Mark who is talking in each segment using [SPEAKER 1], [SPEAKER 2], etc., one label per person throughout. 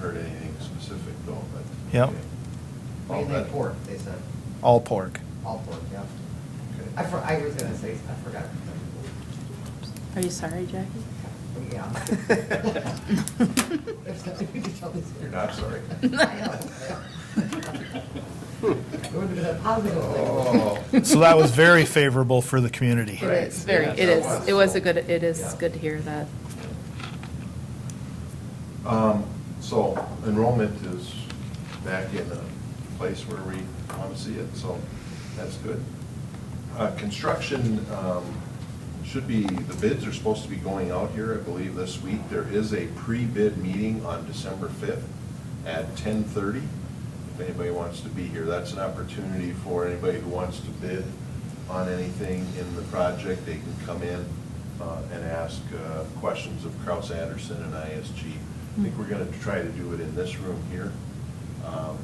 [SPEAKER 1] heard anything specific though, but.
[SPEAKER 2] Yep.
[SPEAKER 1] All
[SPEAKER 3] Mainly
[SPEAKER 1] that-
[SPEAKER 3] pork, they said,
[SPEAKER 2] All pork.
[SPEAKER 3] all pork, yeah.
[SPEAKER 1] okay.
[SPEAKER 3] I, for- I was gonna say, I forgot.
[SPEAKER 4] Are you sorry, Jackie?
[SPEAKER 3] Yeah. If something we could tell this-
[SPEAKER 1] You're not sorry.
[SPEAKER 3] I know. It would have been a positive
[SPEAKER 1] Oh.
[SPEAKER 3] thing.
[SPEAKER 2] So that was very favorable for the community.
[SPEAKER 4] It is very, it is, it was a good, it is
[SPEAKER 3] Yeah.
[SPEAKER 4] good to hear that.
[SPEAKER 1] Um, So enrollment is back in a place where we want to see it, so that's good. Uh, Construction um, should be, the bids are supposed to be going out here, I believe, this week. There is a pre-bid meeting on December 5th at 10:30, if anybody wants to be here. That's an opportunity for anybody who wants to bid on anything in the project. They can come in uh, and ask uh, questions of Kraus Anderson and ISG. I think we're going to try to do it in this room here. Um,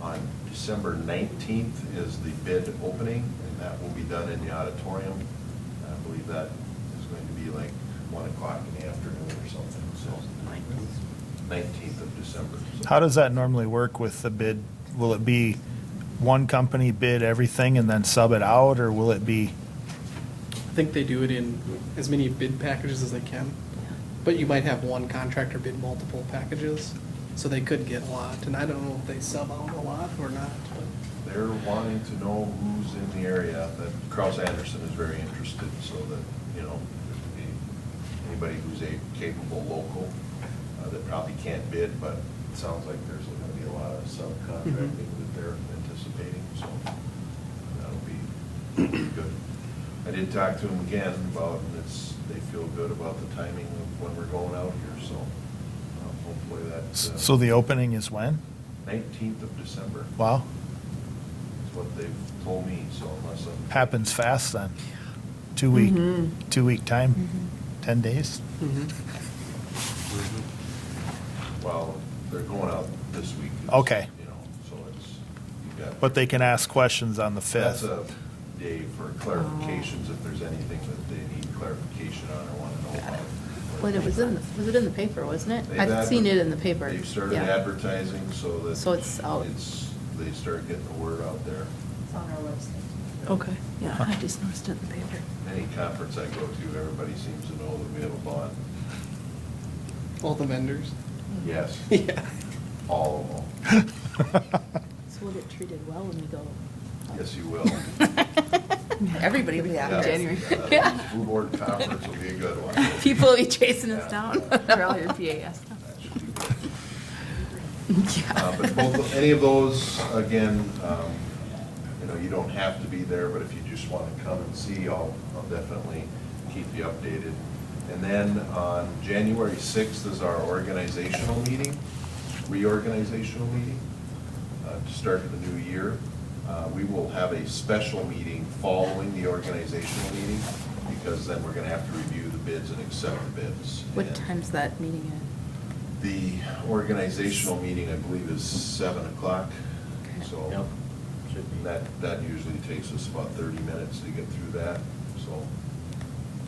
[SPEAKER 1] On December 19th is the bid opening, and that will be done in the auditorium. I believe that is going to be like 1 o'clock in the afternoon or something, so. 19th of December. so.
[SPEAKER 2] How does that normally work with the bid? Will it be one company bid everything and then sub it out, or will it be?
[SPEAKER 5] I think they do it in as many bid packages as they can, but you might have one contractor bid multiple packages, so they could get a lot, and I don't know if they sub out a lot or not, but
[SPEAKER 1] They're wanting to know who's in the area, that Kraus Anderson is very interested, so that, you know, there'd be anybody who's a capable local uh, that probably can't bid, but it sounds like there's gonna be a lot of subcontracting that they're anticipating, so that'll be good. I did talk to them again about, and it's, they feel good about the timing of when we're going out here, so um, hopefully that's. uh,
[SPEAKER 2] So the opening is when?
[SPEAKER 1] 19th of December.
[SPEAKER 2] Wow,
[SPEAKER 1] That's what they've told me, so unless I'm.
[SPEAKER 2] happens fast then. Two week,
[SPEAKER 4] Mm-hmm.
[SPEAKER 2] two week time, ten days.
[SPEAKER 1] Well, they're going out this week. It's,
[SPEAKER 2] Okay.
[SPEAKER 1] You know, so it's, you got.
[SPEAKER 2] But they can ask questions on the
[SPEAKER 1] That's
[SPEAKER 2] fifth.
[SPEAKER 1] a day for clarifications, if there's anything that they need clarification on or want to know about.
[SPEAKER 4] Well, it was in, the was it in the paper, wasn't it?
[SPEAKER 1] They've
[SPEAKER 4] I've seen it in the
[SPEAKER 1] adver-
[SPEAKER 4] paper.
[SPEAKER 1] They've started
[SPEAKER 4] Yeah.
[SPEAKER 1] advertising so that.
[SPEAKER 4] So it's out.
[SPEAKER 1] It's, they start getting the word out there.
[SPEAKER 6] It's on our website.
[SPEAKER 4] Okay, yeah, I just noticed it in the paper.
[SPEAKER 1] Any conference I go to, everybody seems to know that we have a bond.
[SPEAKER 5] all the vendors.
[SPEAKER 4] Mm.
[SPEAKER 1] Yes,
[SPEAKER 5] Yeah.
[SPEAKER 1] all of them.
[SPEAKER 4] So we'll get treated well when we go.
[SPEAKER 1] Yes, you will.
[SPEAKER 4] Everybody will be
[SPEAKER 1] Yeah.
[SPEAKER 4] after January.
[SPEAKER 1] Yeah, the School board conference will be a good one.
[SPEAKER 4] People will be chasing us
[SPEAKER 1] Yeah.
[SPEAKER 4] down. They're all your PAS.
[SPEAKER 1] That should be good. Uh, But both, any of those, again, um, you know, you don't have to be there, but if you just want to come and see, I'll, I'll definitely keep you updated. And then on January 6th is our organizational meeting, reorganizational meeting, uh, to start the new year. Uh, We will have a special meeting following the organizational meeting, because then we're going to have to review the bids and accept the bids.
[SPEAKER 4] What
[SPEAKER 1] And-
[SPEAKER 4] time's that meeting at?
[SPEAKER 1] the organizational meeting, I believe, is seven o'clock,
[SPEAKER 4] Okay.
[SPEAKER 1] so that, that usually takes us about thirty minutes to get through that, so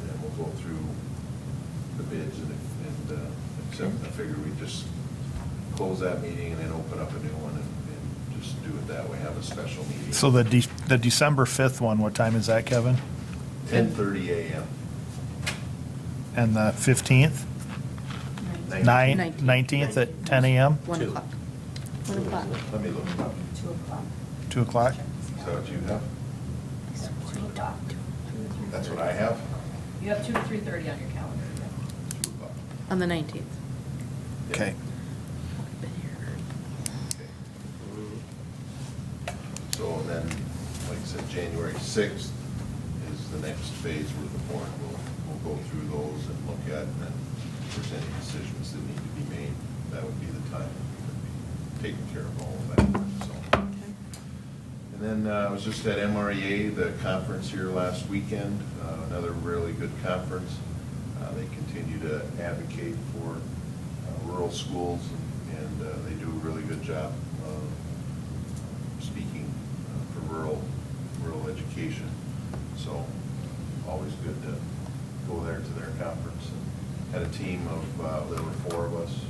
[SPEAKER 1] then we'll go through the bids and, and, uh, except I figure we just close that meeting and then open up a new one and, and just do it that way, have a special meeting.
[SPEAKER 2] So the De- the December fifth one, what time is that, Kevin?
[SPEAKER 1] Ten thirty AM.
[SPEAKER 2] And the fifteenth, nine,
[SPEAKER 4] Nineteenth.
[SPEAKER 2] nineteenth at ten AM,
[SPEAKER 4] One
[SPEAKER 7] Two.
[SPEAKER 4] o'clock. One o'clock.
[SPEAKER 1] Let me look it up.
[SPEAKER 6] Two o'clock.
[SPEAKER 2] two o'clock?
[SPEAKER 1] Is that what you have?
[SPEAKER 6] Two o'clock.
[SPEAKER 1] That's what I have?
[SPEAKER 6] You have two to three thirty on your calendar, yeah.
[SPEAKER 1] Two o'clock.
[SPEAKER 4] On the nineteenth.
[SPEAKER 1] Yeah.
[SPEAKER 2] Okay.
[SPEAKER 1] So then, like I said, January 6th is the next phase where the board will, will go through those and look at, and then if there's any decisions that need to be made, that would be the time to be taking care of all of that, so. And then uh, I was just at MREA, the conference here last weekend, uh, another really good conference. Uh, They continue to advocate for uh, rural schools, and uh, they do a really good job of speaking uh, for rural, rural education. So always good to go there to their conference. And Had a team of, uh, there were four of us,